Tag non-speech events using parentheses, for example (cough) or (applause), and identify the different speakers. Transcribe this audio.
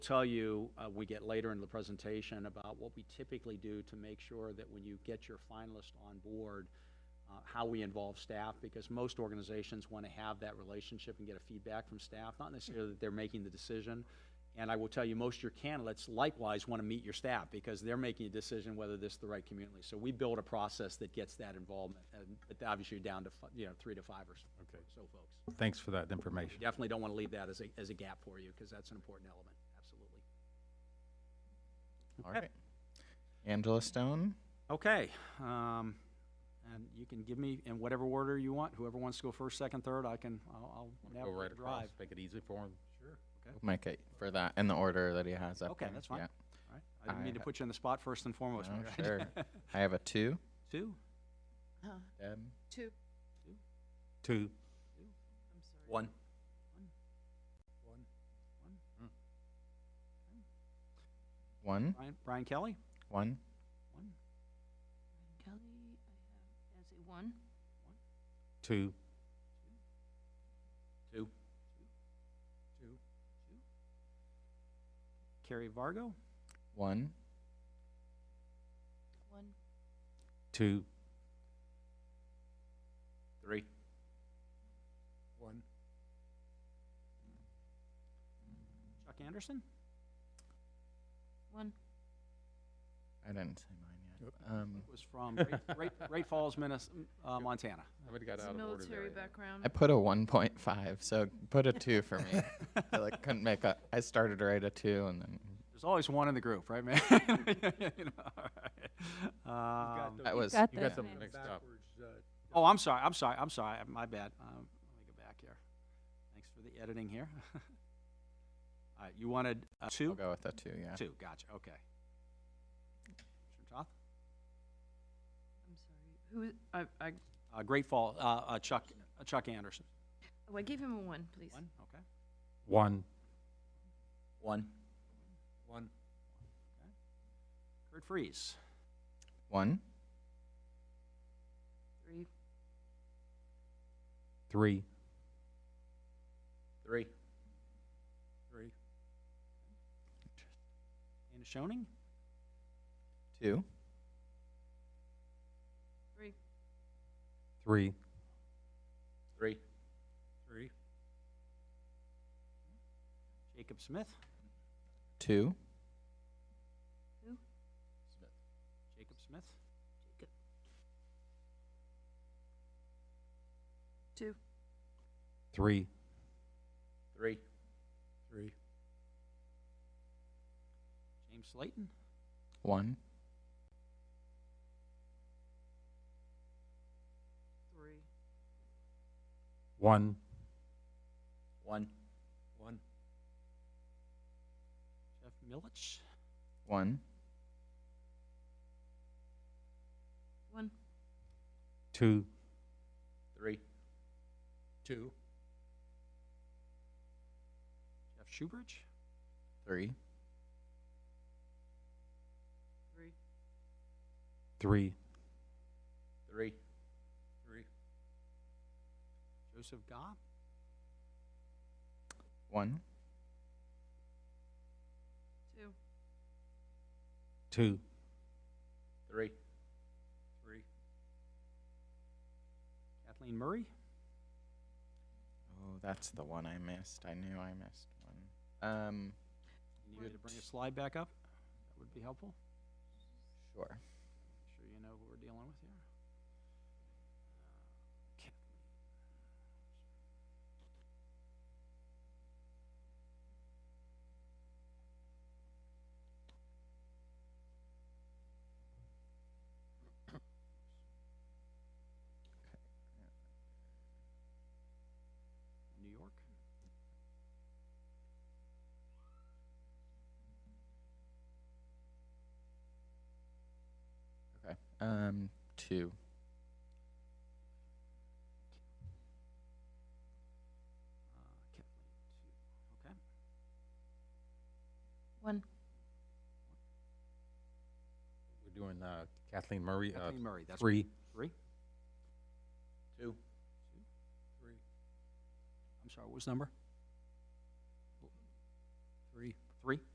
Speaker 1: tell you, uh, we get later in the presentation about what we typically do to make sure that when you get your finalist on board, uh, how we involve staff, because most organizations want to have that relationship and get a feedback from staff, not necessarily that they're making the decision. And I will tell you, most of your candidates likewise want to meet your staff, because they're making a decision whether this is the right community. So we build a process that gets that involvement, and but obviously down to, fi- you know, three to five or s-
Speaker 2: Okay.
Speaker 1: so folks.
Speaker 2: Thanks for that information.
Speaker 1: Definitely don't want to leave that as a, as a gap for you, because that's an important element, absolutely.
Speaker 3: All right. Angela Stone,
Speaker 1: Okay, um, and you can give me in whatever order you want, whoever wants to go first, second, third, I can, I'll, I'll
Speaker 2: Go right
Speaker 1: navigate,
Speaker 2: across,
Speaker 1: drive.
Speaker 2: make it easy for him.
Speaker 3: Mike, uh, for that in the order that he has up.
Speaker 1: Okay,
Speaker 3: there.
Speaker 1: that's fine.
Speaker 3: Yeah.
Speaker 1: All right. I didn't
Speaker 3: I
Speaker 1: mean to
Speaker 3: ha-
Speaker 1: put you on the spot first and foremost.
Speaker 3: No,
Speaker 1: Mary.
Speaker 3: sure. I have a two.
Speaker 1: (laughs) Two?
Speaker 4: Uh,
Speaker 3: Deb,
Speaker 4: Two.
Speaker 2: Two.
Speaker 4: I'm sorry.
Speaker 1: One.
Speaker 3: one,
Speaker 1: Brian, Brian Kelly?
Speaker 3: one.
Speaker 1: One.
Speaker 4: Kelly, I have as a one.
Speaker 2: Two.
Speaker 1: Two. Two. Carrie Vargo?
Speaker 3: One.
Speaker 4: One.
Speaker 2: Two.
Speaker 1: Three.
Speaker 5: One,
Speaker 1: Chuck Anderson?
Speaker 4: One.
Speaker 3: I didn't say mine yet. Um,
Speaker 1: Was from Great-
Speaker 3: (laughs)
Speaker 1: Great, Great Falls, Minnes, uh, Montana.
Speaker 2: Somebody got
Speaker 4: It's
Speaker 2: out of order
Speaker 4: military
Speaker 2: there.
Speaker 4: background.
Speaker 3: I put a 1.5, so put a
Speaker 2: (laughs)
Speaker 3: two for me. I like couldn't make a. I started right at two, and then
Speaker 1: (laughs) There's always one in the group, right, man? (laughs) You know, all right. Um,
Speaker 3: that was.
Speaker 2: You got something
Speaker 5: one
Speaker 2: mixed up.
Speaker 5: backwards, uh,
Speaker 1: Oh, I'm sorry, I'm sorry, I'm sorry, my bad. Um, Let me go back here. Thanks for the editing here. (laughs) All right, you wanted uh,
Speaker 3: I'll
Speaker 1: two?
Speaker 3: go with a two. Yeah.
Speaker 1: Two, gotcha, okay. Commissioner Toth?
Speaker 4: I'm sorry. Who, is- I, I,
Speaker 1: Uh, Great Fall, uh, uh, Chuck, uh, Chuck Anderson.
Speaker 4: oh, I gave him a one, please.
Speaker 1: One, okay.
Speaker 2: One.
Speaker 1: One.
Speaker 5: one,
Speaker 1: Kurt Freeze,
Speaker 3: One.
Speaker 4: Three.
Speaker 2: Three.
Speaker 1: Three.
Speaker 5: three,
Speaker 1: Anna Schoening?
Speaker 3: Two.
Speaker 4: Three.
Speaker 2: Three.
Speaker 1: Three.
Speaker 5: three,
Speaker 1: Jacob Smith?
Speaker 3: Two.
Speaker 1: Jacob Smith?
Speaker 4: Two.
Speaker 2: Three.
Speaker 1: Three.
Speaker 5: three,
Speaker 1: James Slayton?
Speaker 3: One.
Speaker 4: Three.
Speaker 2: One.
Speaker 1: One.
Speaker 5: one,
Speaker 1: Jeff Milich?
Speaker 3: One.
Speaker 4: One.
Speaker 2: Two.
Speaker 1: Three.
Speaker 5: two,
Speaker 1: Jeff Schubert?
Speaker 3: Three.
Speaker 4: Three.
Speaker 2: Three.
Speaker 1: Three.
Speaker 5: three,
Speaker 1: Joseph Gobb?
Speaker 3: One.
Speaker 4: Two.
Speaker 2: Two.
Speaker 1: Three.
Speaker 5: three,
Speaker 1: Kathleen Murray?
Speaker 3: Oh, that's the one I missed. I knew I missed one. Um,
Speaker 1: You need me to bring a slide back up? That would be helpful.
Speaker 3: sure.
Speaker 1: Make Sure you know who we're dealing with here. Uh, Kathleen. New York?
Speaker 3: Okay. Um, two.
Speaker 1: Uh, Kathleen, two. Okay.
Speaker 4: One.
Speaker 2: We're doing uh, Kathleen Murray. Uh,
Speaker 1: Kathleen Murray, that's
Speaker 2: three.
Speaker 1: Three? Two.
Speaker 5: three,
Speaker 1: I'm sorry, what was the number?
Speaker 5: three,
Speaker 1: Three?